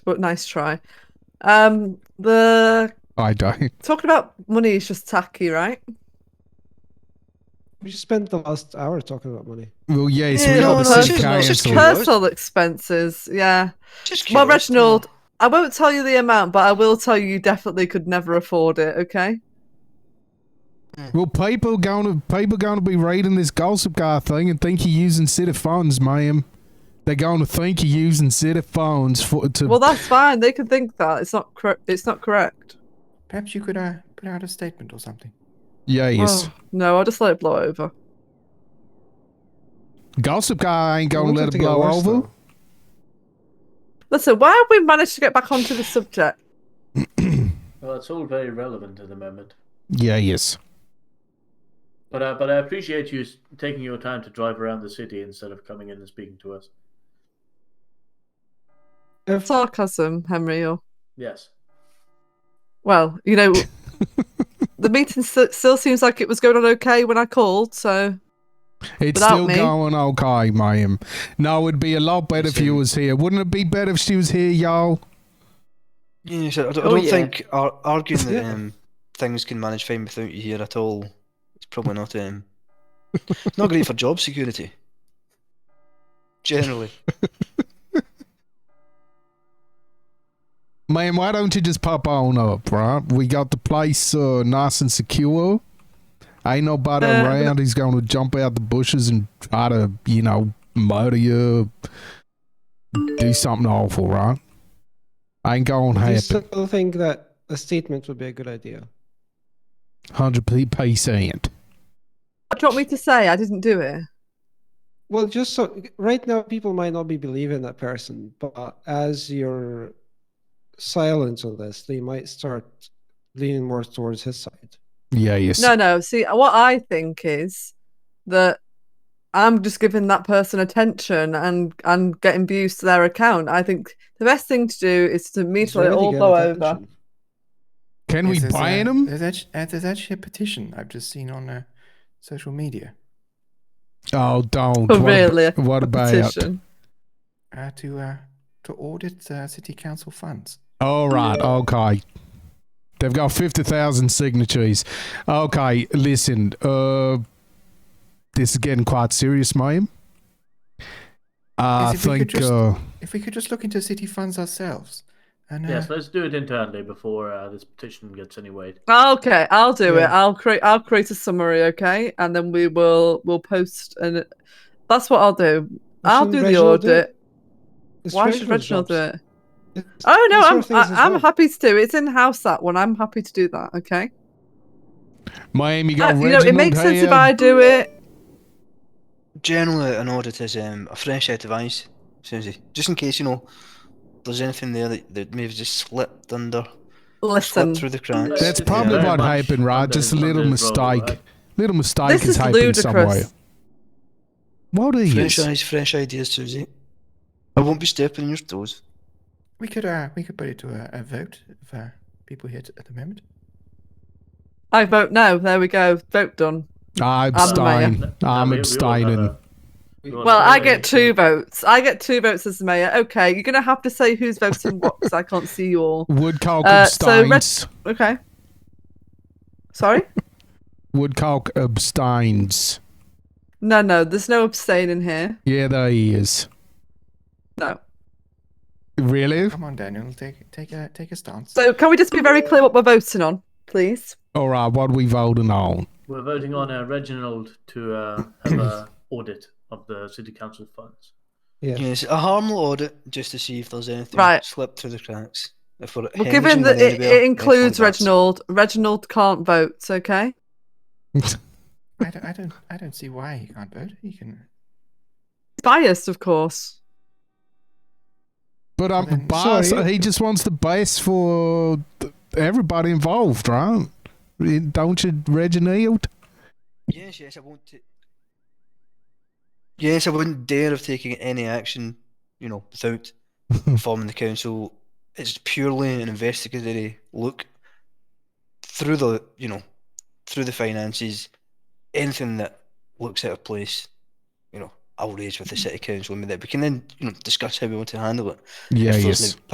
but nice try. Um, the I don't. talking about money is just tacky, right? We just spent the last hour talking about money. Well, yes, we Yeah, got no, the no, sick it's guy just- it's and just all. curious. Personal expenses, yeah. Just Well, curious. Reginald, I won't tell you the amount, but I will tell you you definitely could never afford it. Okay. Well, people gonna people gonna be reading this gossip guy thing and think you're using city phones, ma'am. They're gonna think you're using city phones for to. Well, that's fine. They can think that it's not correct. It's not correct. Perhaps you could uh, put out a statement or something. yes, Oh, no, I'll just let it blow over. gossip guy ain't gonna It looks let like it to get blow worse, over. though. Listen, why have we managed to get back onto the subject? Well, it's all very relevant at the moment. Yeah, yes. But uh, but I appreciate you s- taking your time to drive around the city instead of coming in and speaking to us. If Sarcasm, Henry. Or Yes. well, you know, the meeting st- still seems like it was going on okay when I called. So It's Without still me? going okay, ma'am. No, it'd be a lot better if you was here. Wouldn't it be better if she was here, y'all? Yeah, so I, d- I Oh, don't yeah. think ar- arguing that Yeah. um, things can manage fine without you here at all is probably not um, it's not great for job security. Generally, Ma'am, why don't you just pop on up, right? We got the place uh, nice and secure. Ain't nobody Uh, around who's going to jump out the bushes and try to, you know, murder you, do something awful, right? Ain't going to do you happen. still think that a statement would be a good idea? 100%. what do you want me to say? I didn't do it. Well, just so right now, people might not be believing that person, but as your silence on this, they might start leaning more towards his side. Yes. No, no. See, what I think is that I'm just giving that person attention and and getting views to their account. I think the best thing to do is to He's immediately already all getting blow over. attention. Can we ban a, him? There's actually, there's actually a petition I've just seen on uh, social media Oh, don't. Oh, What ab- really? What A about? petition. uh, to uh, to audit uh, city council funds. All right, okay. They've got 50,000 signatures. Okay, listen, uh, this is getting quite serious, ma'am. I Yes, if we could think, just- uh, If we could just look into city funds ourselves, and uh, Yes, let's do it internally before uh, this petition gets any weight. Okay, I'll do it. Yeah. I'll create. I'll create a summary. Okay, and then we will we'll post and that's what I'll do. Well, I'll shouldn't do the Reginald do it? audit. It's Why should Reginald's Reginald do it? jobs. It's- Oh no, it's your I'm things as I, I'm well. happy to do it. It's in house that one. I'm happy to do that. Okay. ma'am, you Uh, got you know, it Reginald makes sense here? if I do it. generally an audit is um, a fresh set of eyes, Susie. Just in case you know there's anything there that, that may have just slipped under, Listen, slipped through the cracks. That's Yeah. probably Very what much happened, right? under- Just a little under his mistake. role, right? Little mistake this has is happened ludicrous. somewhere. What are you? Fresh eyes, fresh ideas, Susie. I won't be stepping on your toes. We could uh, we could put it to a, a vote of uh, people here t- at the moment. I vote no. There we go. Vote done. I I'm uh, the mayor. abstain. Um, I'm No, we- abstaining. we all have a- we all Well, have a I get two voting votes. I get two votes as the mayor. Okay, you're gonna have to say who's voting what because I can't see you all. Woodcock Uh, so Reg- abstains. Okay. Sorry. Woodcock abstains. No, no. There's no abstaining here. Yeah, there he is. No. Really? Come on, Daniel, take take a take a stance. So can we just be very clear what we're voting on, please? All right, what are we voting on? We're voting on uh, Reginald to uh, have a audit of the city council funds. Yeah. Yes, a harmful audit just to see if there's anything Right. slipped through the cracks. If we're Well, hemorrhaging given that money it, anywhere, it red includes flag that's- Reginald, Reginald can't vote. Okay. I don't, I don't I don't see why he can't vote. He can. He's biased, of course. But I'm Well, then- biased. Sorry. He just wants the best for th- everybody involved, right? Eh, Don't you, Reginald? Yes, yes, I won't. ta- yes, I wouldn't dare of taking any action. You know, without informing the council. It's purely an investigatory look through the you know through the finances. Anything that looks out of place, you know, I'll raise with the city council. and that we can then you know discuss how we want to handle it. Yeah, If there's yes. no